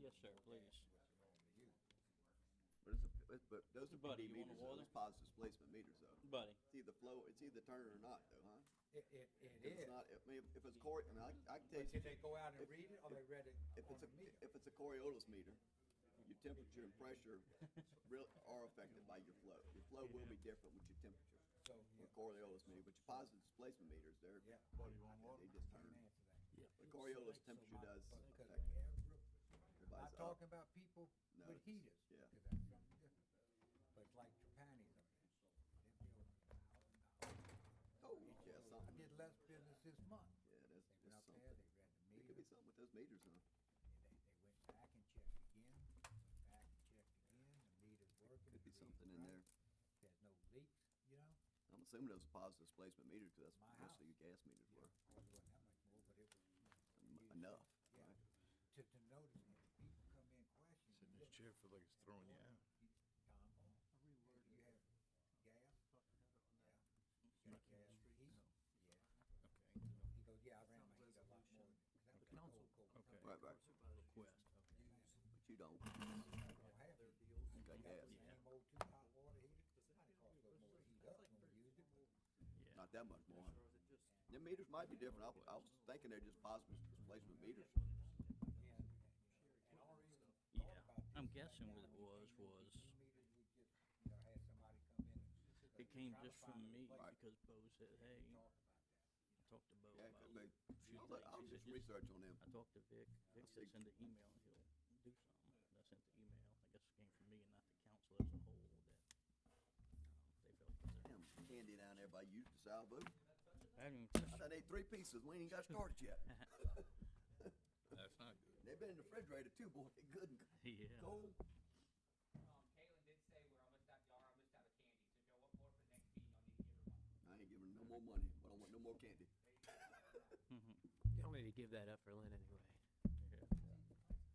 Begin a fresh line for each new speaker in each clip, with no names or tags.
Yes, sir, please.
But it's a, it- but those are
Buddy,
PD
you want a
meters, though,
water?
those positive displacement meters though.
Buddy,
It's either flow, it's either turn or not though, huh?
It, it, it is.
If it's not, I mean, if- if it's core, I mean, I, I can tell
But
you,
did they go out and
if-
read it or
if-
they read it
if
on
it's a,
the meter?
if it's a Coriolis meter, your temperature and pressure real, are affected by your flow. Your flow will be different with your temperature,
So, yeah,
with Coriolis meter, but your positive displacement meters, they're,
yeah.
they just
Can't
turn.
answer that.
But Coriolis temperature does
Because
affect
every-
everybody's
not
up.
talking about people
No,
with
it's-
heaters.
yeah.
'cause that's something different. But it's like Trapani's up there. They bill
Oh, yeah,
I
something,
did less business this month.
yeah, that's,
They went
that's
up there, they
something.
read the
It could
meter,
be something with those meters, huh?
and they, they went back and checked again, went back and checked again, the meter's working. the read's
Could be something in
right,
there.
There's no leaks, you know?
I'm assuming those are positive displacement meters, because
My
that's mostly
house.
your gas meters
Yeah, well,
were,
it wasn't that much more, but it was.
m-
you-
enough,
Yeah,
right?
to, to notice it, if people come in questioning.
Sitting in this chair feels like it's throwing you out.
Tom, you have gas? Yeah. You got gas for heat?
Oh.
Yeah.
Okay.
He goes, yeah, I ran my heat a lot more. than- 'cause that was
Okay.
cold, cold.
Okay.
Right, right,
Request.
but you don't,
I don't have it.
you got gas,
Same old two hot water heaters. Might have cost a little more to heat up when we used it, but
not that much more. The meters might be different, I, was- I was thinking they're just positive displacement meters.
Yeah. And all
E
reason I
Yeah,
thought about this
I'm
right
guessing
now
what it
when you
was,
came in with
was-
these two meters, we just, you know, had somebody come in and-
it came
trying to
just
find a
from me
place
Right.
because Bo said,
to talk
hey,
about that.
talk to Bo
Yeah, it
about
could
it.
be.
Few
I'll, let-
things.
I'll
He
do
said,
some research on them.
I talked to Vic, Vic said
think-
send an email and he'll do something. And I sent the email, I guess it came from me and not the council as a whole that, um, they felt was there.
Damn candy down there by you, DeSalvo.
I haven't even
I
touched it.
done ate three pieces, we ain't even got started yet.
That's not good.
They've been in the refrigerator too, boy, they good and
Yeah.
cold.
Um, Caitlin did say we're almost out, y'all are almost out of candy, so Joe, what more for the next meeting, y'all need to give her
I ain't giving no more
one.
money, I don't want no more candy.
Y'all need to give that up for Lynn anyway.
Twenty dollars a bag.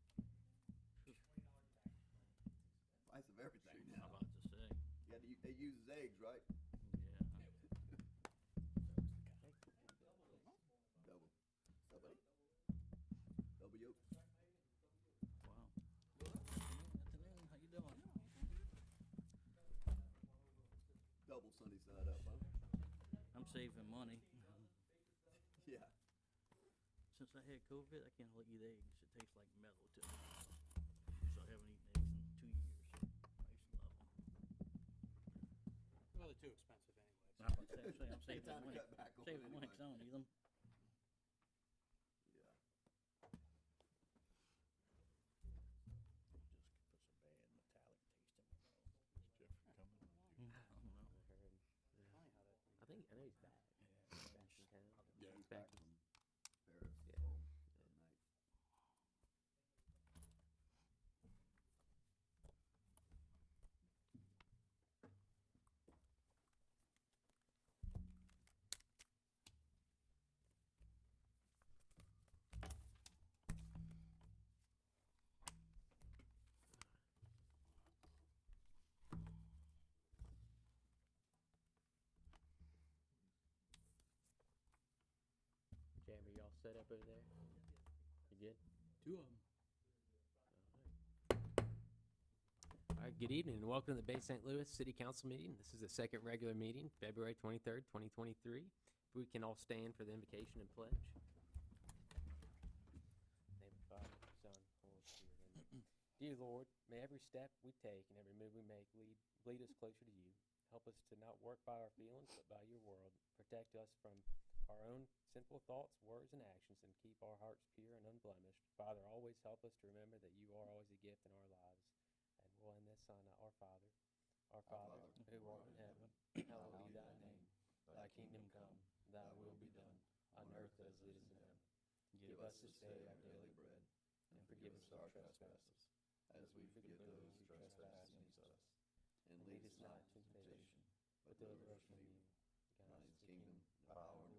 Price of everything
I'm
now.
about to say,
Yeah, they, they use eggs, right?
yeah.
Double. Double. Double yolk.
Wow. Good afternoon, how you doing?
Double sunny side up, huh?
I'm saving money.
Yeah.
Since I had COVID, I can't eat eggs. It tastes like metal to me. So I haven't eaten eggs in two years. I used to love them.
Well, they're too expensive anyway.
I'm about to say, I'm saving
Time
that
to
money.
cut back on
Saving that
it
money 'cause I don't need them.
Yeah.
Just puts a bad metallic taste in my mouth.
Is Jeffrey coming? Or you-
I don't know.
I think, I know he's back. He's back in town.
Yeah.
He's back from Paris.
Yeah.
Oh, good night.
Jam, are y'all set up over there? You good?
Two of them.
All right, good evening and welcome to the Bay St. Louis City Council meeting. This is the second regular meeting, February 23rd, 2023. If we can all stand for the invocation and pledge. Name of the Father, Son, Holy Spirit. Amen. Dear Lord, may every step we take and every move we make lead, lead us closer to you. Help us to not work by our feelings, but by your world. Protect us from our own sinful thoughts, words, and actions, and keep our hearts pure and unblemished. Father, always help us to remember that you are always a gift in our lives. And we'll end this on uh, our Father. Our Father, who art in heaven, hallowed be thy name. Thy kingdom come, thy will be done, on earth as it is in heaven. Give us this day our daily bread, and forgive us our trespasses, as we forgive those who trespass against us. And lead us not into temptation, but deliver us from evil. God is the kingdom, the power, and